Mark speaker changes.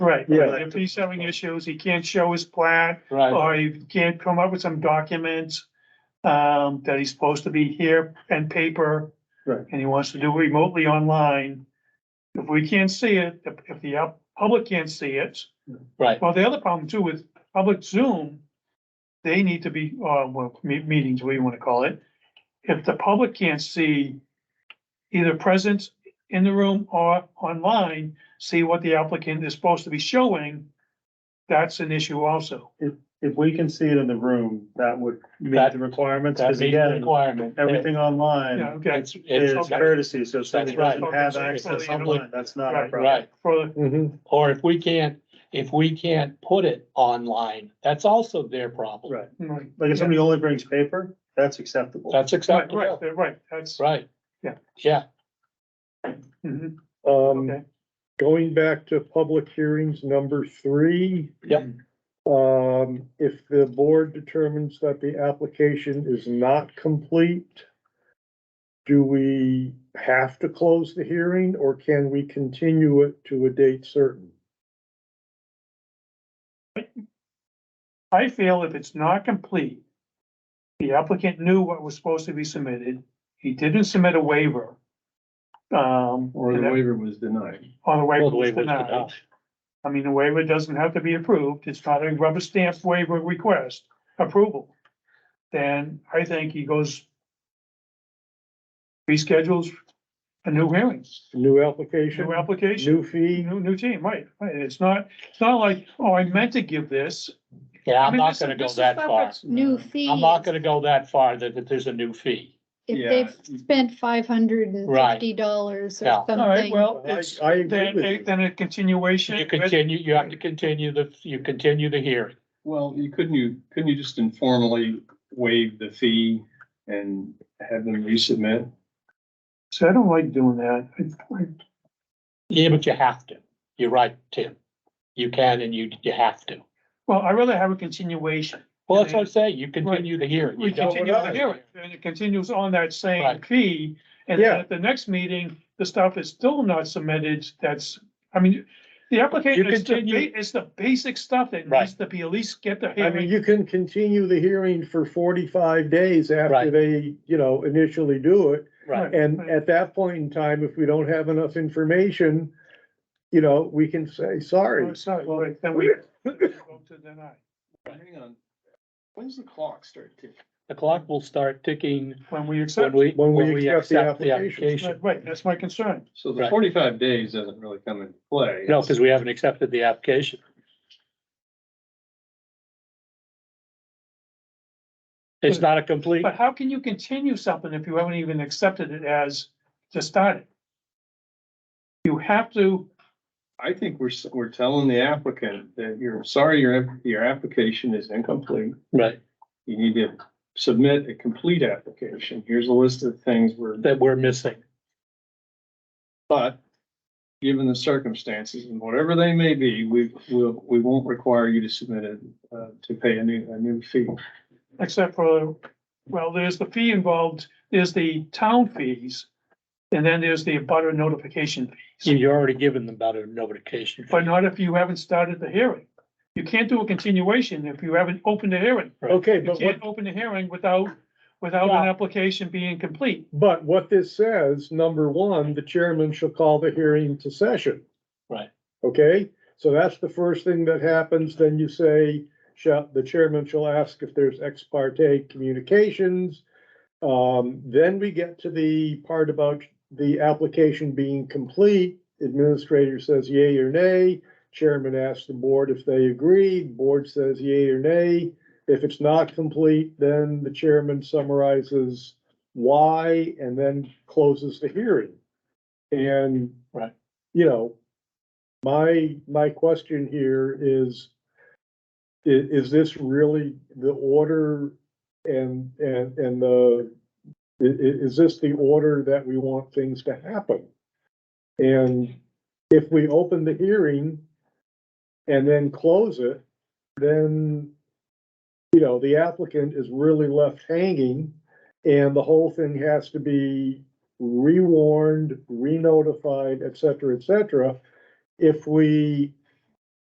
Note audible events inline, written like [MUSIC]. Speaker 1: Right,
Speaker 2: Yeah.
Speaker 1: if he's having issues, he can't show his plat,
Speaker 2: Right,
Speaker 1: or he can't come up with some documents. Um, that he's supposed to be here and paper.
Speaker 2: Right.
Speaker 1: And he wants to do remotely online. If we can't see it, if, if the out- public can't see it,
Speaker 2: right,
Speaker 1: well, the other problem too with public Zoom. They need to be, uh, well, me- meetings, what you wanna call it. If the public can't see either presence in the room or online, see what the applicant is supposed to be showing. That's an issue also.
Speaker 3: If we can see it in the room, that would meet
Speaker 2: That-
Speaker 3: the requirements,
Speaker 2: that
Speaker 3: because
Speaker 2: means the
Speaker 3: again,
Speaker 2: requirement.
Speaker 3: everything
Speaker 1: Yeah,
Speaker 3: online
Speaker 1: okay,
Speaker 2: It's,
Speaker 3: is
Speaker 2: it's,
Speaker 3: courtesy, so if somebody
Speaker 2: right.
Speaker 3: doesn't have
Speaker 1: Okay, so
Speaker 3: access
Speaker 1: it's public-
Speaker 3: online, that's not a
Speaker 1: Right.
Speaker 3: problem.
Speaker 2: right,
Speaker 1: for,
Speaker 2: or if we can't, if we can't put it online, that's also their problem.
Speaker 3: Right,
Speaker 1: right,
Speaker 3: like if somebody only brings paper, that's acceptable.
Speaker 2: That's
Speaker 1: right,
Speaker 2: acceptable,
Speaker 1: right, right, that's,
Speaker 2: right?
Speaker 1: Yeah.
Speaker 2: Yeah,
Speaker 1: mhm, okay.
Speaker 4: Um, going back to public hearings number three.
Speaker 2: Yep.
Speaker 4: Um, if the board determines that the application is not complete, do we have to close the hearing or can we continue it to a date certain?
Speaker 1: I feel if it's not complete, the applicant knew what was supposed to be submitted, he didn't submit a waiver. Um. and that-
Speaker 3: waiver was denied.
Speaker 1: or the waiver
Speaker 2: Well, the
Speaker 1: was
Speaker 2: waiver was
Speaker 1: denied.
Speaker 2: denied.
Speaker 1: I mean, the waiver doesn't have to be approved. It's not a rubber stamp waiver request approval. Then I think he goes. Reschedules a new hearing,
Speaker 4: New application,
Speaker 1: new application,
Speaker 4: new fee?
Speaker 1: new, new team, right, right. It's not, it's not like, oh, I meant to give this.
Speaker 2: yeah,
Speaker 1: I
Speaker 2: I'm
Speaker 1: mean,
Speaker 2: not
Speaker 1: this is-
Speaker 2: gonna
Speaker 1: this
Speaker 2: go
Speaker 1: is
Speaker 2: that
Speaker 1: not
Speaker 2: far.
Speaker 1: what's-
Speaker 5: New fee.
Speaker 2: I'm not gonna go that far, that, that there's a new fee.
Speaker 5: If they've spent five hundred and fifty dollars
Speaker 2: Yeah.
Speaker 5: or
Speaker 1: All right,
Speaker 5: something,
Speaker 1: well,
Speaker 4: I,
Speaker 1: it's,
Speaker 4: I agree
Speaker 1: then,
Speaker 4: with you.
Speaker 1: then a continuation.
Speaker 2: You continue, you have to continue the, you continue the hearing.
Speaker 6: Well, you couldn't you, couldn't you just informally waive the fee and have them resubmit?
Speaker 1: So I don't like doing that. I- I-
Speaker 2: Yeah, but you have to. You're right, Tim. You can and you, you have to.
Speaker 1: [LAUGHS] Well, I'd rather have a continuation.
Speaker 2: Well, that's what I'm saying. You continue the hearing. You
Speaker 1: We
Speaker 2: don't-
Speaker 1: continue the hearing, and it continues on that same
Speaker 2: Right.
Speaker 1: fee, and then
Speaker 4: Yeah.
Speaker 1: at the next meeting, the stuff is still not submitted, that's, I mean, the
Speaker 2: You
Speaker 1: application, it's the,
Speaker 2: continue-
Speaker 1: ba- it's the basic stuff that
Speaker 2: Right.
Speaker 1: needs to be at least get the
Speaker 4: I mean,
Speaker 1: hearing,
Speaker 4: you can continue the hearing for forty-five days after
Speaker 2: Right.
Speaker 4: they, you know, initially do it.
Speaker 2: Right,
Speaker 4: And
Speaker 1: Right.
Speaker 4: at that point in time, if we don't have enough information, you know, we can say, sorry.
Speaker 1: Oh, sorry, right, then
Speaker 4: [LAUGHS]
Speaker 1: we vote to deny,
Speaker 6: Hang on. When's the clock start ticking?
Speaker 2: the clock will start ticking
Speaker 1: when we
Speaker 2: when
Speaker 1: accept,
Speaker 2: we,
Speaker 4: When we
Speaker 2: when we
Speaker 4: accept the
Speaker 2: accept the
Speaker 4: application.
Speaker 2: application.
Speaker 1: right, right, that's my concern.
Speaker 6: So the
Speaker 2: Right.
Speaker 6: forty-five days doesn't really come into play.
Speaker 2: No, because we haven't accepted the application. It's not a complete,
Speaker 1: But how can you continue something if you haven't even accepted it as to start it? You have to,
Speaker 6: I think we're, s- we're telling the applicant that you're sorry, your, your application is incomplete.
Speaker 2: right,
Speaker 6: You need to submit a complete application. Here's a list of things we're,
Speaker 2: that we're missing.
Speaker 6: but given the circumstances and whatever they may be, we, we'll, we won't require you to submit it, uh, to pay a new, a new fee.
Speaker 1: except for, well, there's the fee involved, there's the town fees. And then there's the butter notification fees,
Speaker 2: You've already given them about a notification.
Speaker 1: but not if you haven't started the hearing. You can't do a continuation if you haven't opened the hearing.
Speaker 4: Okay,
Speaker 1: You
Speaker 4: but what,
Speaker 1: can't open the hearing without, without an
Speaker 2: Yeah.
Speaker 1: application being complete.
Speaker 4: but what this says, number one, the chairman shall call the hearing to session.
Speaker 2: Right.
Speaker 4: Okay, so that's the first thing that happens, then you say, shall, the chairman shall ask if there's ex parte communications. Um, then we get to the part about the application being complete. Administrator says yay or nay. Chairman asks the board if they agree. Board says yay or nay. If it's not complete, then the chairman summarizes why and then closes the hearing. And.
Speaker 2: Right.
Speaker 4: You know, my, my question here is, i- is this really the order and, and, and the, i- i- is this the order that we want things to happen? And if we open the hearing and then close it, then, you know, the applicant is really left hanging and the whole thing has to be rewarned, re-notified, et cetera, et cetera. If we